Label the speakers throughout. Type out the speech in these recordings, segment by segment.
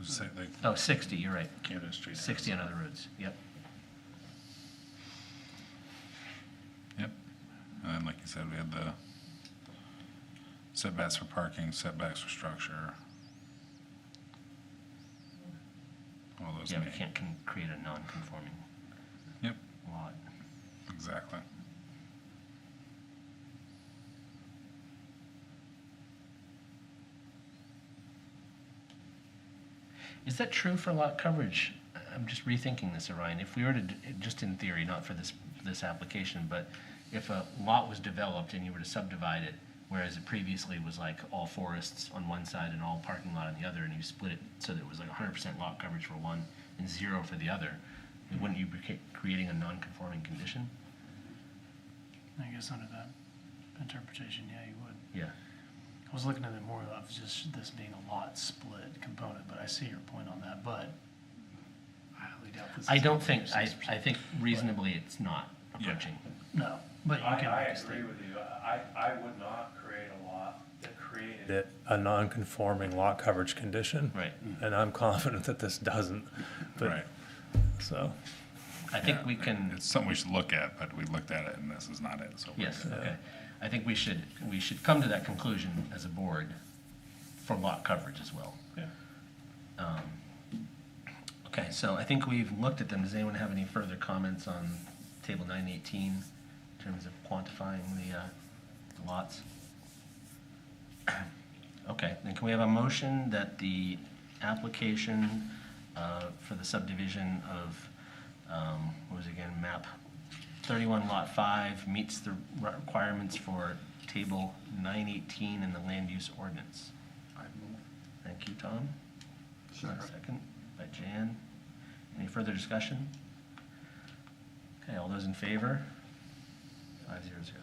Speaker 1: It's like like
Speaker 2: Oh, 60, you're right.
Speaker 1: Canada Street.
Speaker 2: 60 on other roads, yep.
Speaker 1: Yep. And then, like you said, we had the setbacks for parking, setbacks for structure. All those.
Speaker 2: Yeah, we
Speaker 1: neat-
Speaker 2: can't con- create a non-conforming
Speaker 1: Yep,
Speaker 2: lot.
Speaker 1: exactly.
Speaker 2: Is that true for lot coverage? I'm just rethinking this, Orion. If we were to, d- just in theory, not for this, this application, but if a lot was developed and you were to subdivide it, whereas it previously was like all forests on one side and all parking lot on the other, and you split it so that it was like hundred percent lot coverage for one and zero for the other, wouldn't you be ca- creating a non-conforming condition?
Speaker 3: I guess under that interpretation, yeah, you would.
Speaker 2: Yeah.
Speaker 3: I was looking at it more of just this being a lot split component, but I see your point on that, but I highly doubt this.
Speaker 2: I
Speaker 3: is
Speaker 2: don't
Speaker 3: gonna
Speaker 2: think,
Speaker 3: be
Speaker 2: I,
Speaker 3: 6%.
Speaker 2: I think reasonably it's not approaching.
Speaker 3: No, but you
Speaker 4: I,
Speaker 3: can
Speaker 4: I
Speaker 3: make a
Speaker 4: agree
Speaker 3: statement.
Speaker 4: with you. I, I would not create a lot that created,
Speaker 5: it a non-conforming lot coverage condition.
Speaker 2: Right.
Speaker 5: And I'm confident that this doesn't,
Speaker 1: Right.
Speaker 5: but, so,
Speaker 2: I think we can,
Speaker 1: It's something we should look at, but we looked at it and this is not it, so. we're
Speaker 2: yes,
Speaker 1: good.
Speaker 2: okay. I think we should, we should come to that conclusion as a board for lot coverage as well.
Speaker 4: Yeah.
Speaker 2: Um, Okay, so I think we've looked at them. Does anyone have any further comments on table nine eighteen in terms of quantifying the uh, lots? Okay, then can we have a motion that the application uh, for the subdivision of, um, what was it again, map 31 Lot 5 meets the re- requirements for Table 918 in the land use ordinance? Thank you, Tom. Second by Jan. Any further discussion? Okay, all those in favor? Five zero zero.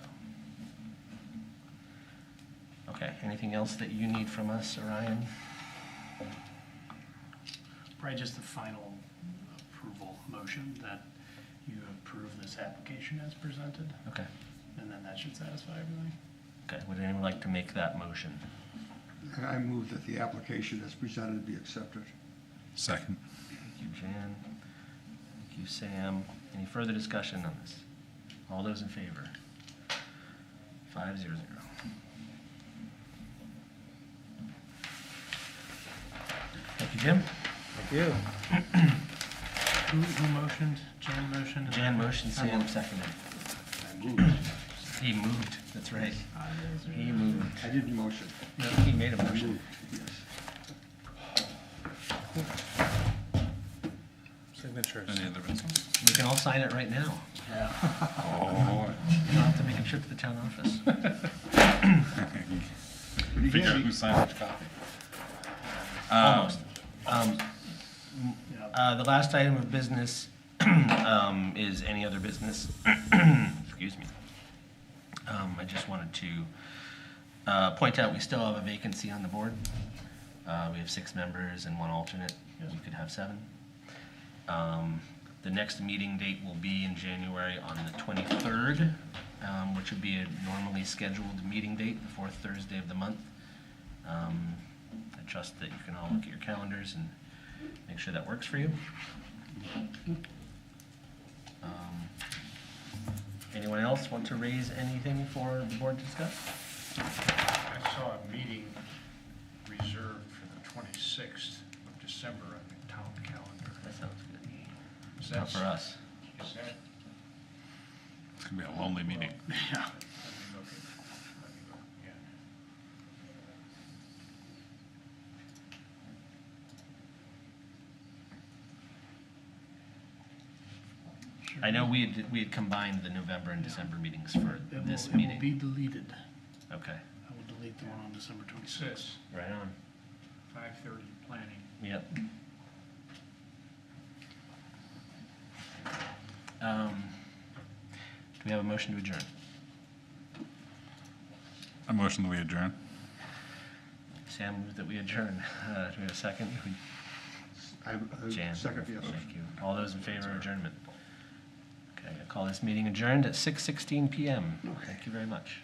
Speaker 2: Okay, anything else that you need from us, Orion?
Speaker 3: Probably just the final approval motion that you approve this application as presented,
Speaker 2: Okay,
Speaker 3: and then that should satisfy everything.
Speaker 2: okay, would anyone like to make that motion?
Speaker 6: And I move that the application as presented be accepted.
Speaker 1: Second.
Speaker 2: Thank you, Jan. Thank you, Sam. Any further discussion on this? All those in favor? Five zero zero. Thank you, Jim.
Speaker 3: Who, who motioned? Jan motioned? and
Speaker 2: Jan
Speaker 3: then-
Speaker 2: motioned, Sam seconded.
Speaker 6: I moved.
Speaker 2: He moved, that's right.
Speaker 3: Five zero zero.
Speaker 2: He moved.
Speaker 6: I didn't motion.
Speaker 2: No, He made a
Speaker 6: I
Speaker 2: motion.
Speaker 6: moved, yes.
Speaker 5: signatures.
Speaker 1: Any other business?
Speaker 2: We can all sign it right now.
Speaker 1: Oh,
Speaker 2: You don't have to make a trip to the town office.
Speaker 6: But
Speaker 1: figure out
Speaker 6: again,
Speaker 1: who signed which copy.
Speaker 2: Almost. Um,
Speaker 3: Yeah.
Speaker 2: Uh, The last item of business um, is any other business. Excuse me. Um, I just wanted to uh, point out, we still have a vacancy on the board. Uh, We have six members and one alternate. We could have seven. Um, The next meeting date will be in January on the 23rd, um, which would be a normally scheduled meeting date, the fourth Thursday of the month. Um, I trust that you can all look at your calendars and make sure that works for you. Um, Anyone else want to raise anything for the board to discuss?
Speaker 4: I saw a meeting reserved for the twenty-sixth of December on the town calendar.
Speaker 2: That sounds good.
Speaker 4: Is
Speaker 2: Not for
Speaker 4: that-
Speaker 2: us.
Speaker 4: Is that?
Speaker 1: It's gonna be a lonely meeting.
Speaker 4: Yeah. Let me look at- let me look, yeah.
Speaker 3: Sure.
Speaker 2: I know we had, we had combined the November and December meetings for
Speaker 3: It will-
Speaker 2: this
Speaker 3: It will be
Speaker 2: meeting.
Speaker 3: deleted.
Speaker 2: Okay,
Speaker 3: I will delete the one on December
Speaker 4: It's
Speaker 3: 26th.
Speaker 4: this,
Speaker 2: right on.
Speaker 4: five-thirty planning.
Speaker 2: Yep. Um, Do we have a motion to adjourn?
Speaker 1: I motion that we adjourn.
Speaker 2: Sam moved that we adjourn. Uh, Do we have a second?
Speaker 6: I- I-
Speaker 2: Jan?
Speaker 6: Second, yes.
Speaker 2: Thank you. All those in favor of adjournment? Okay, I call this meeting adjourned at 6:16 PM. Thank you very much.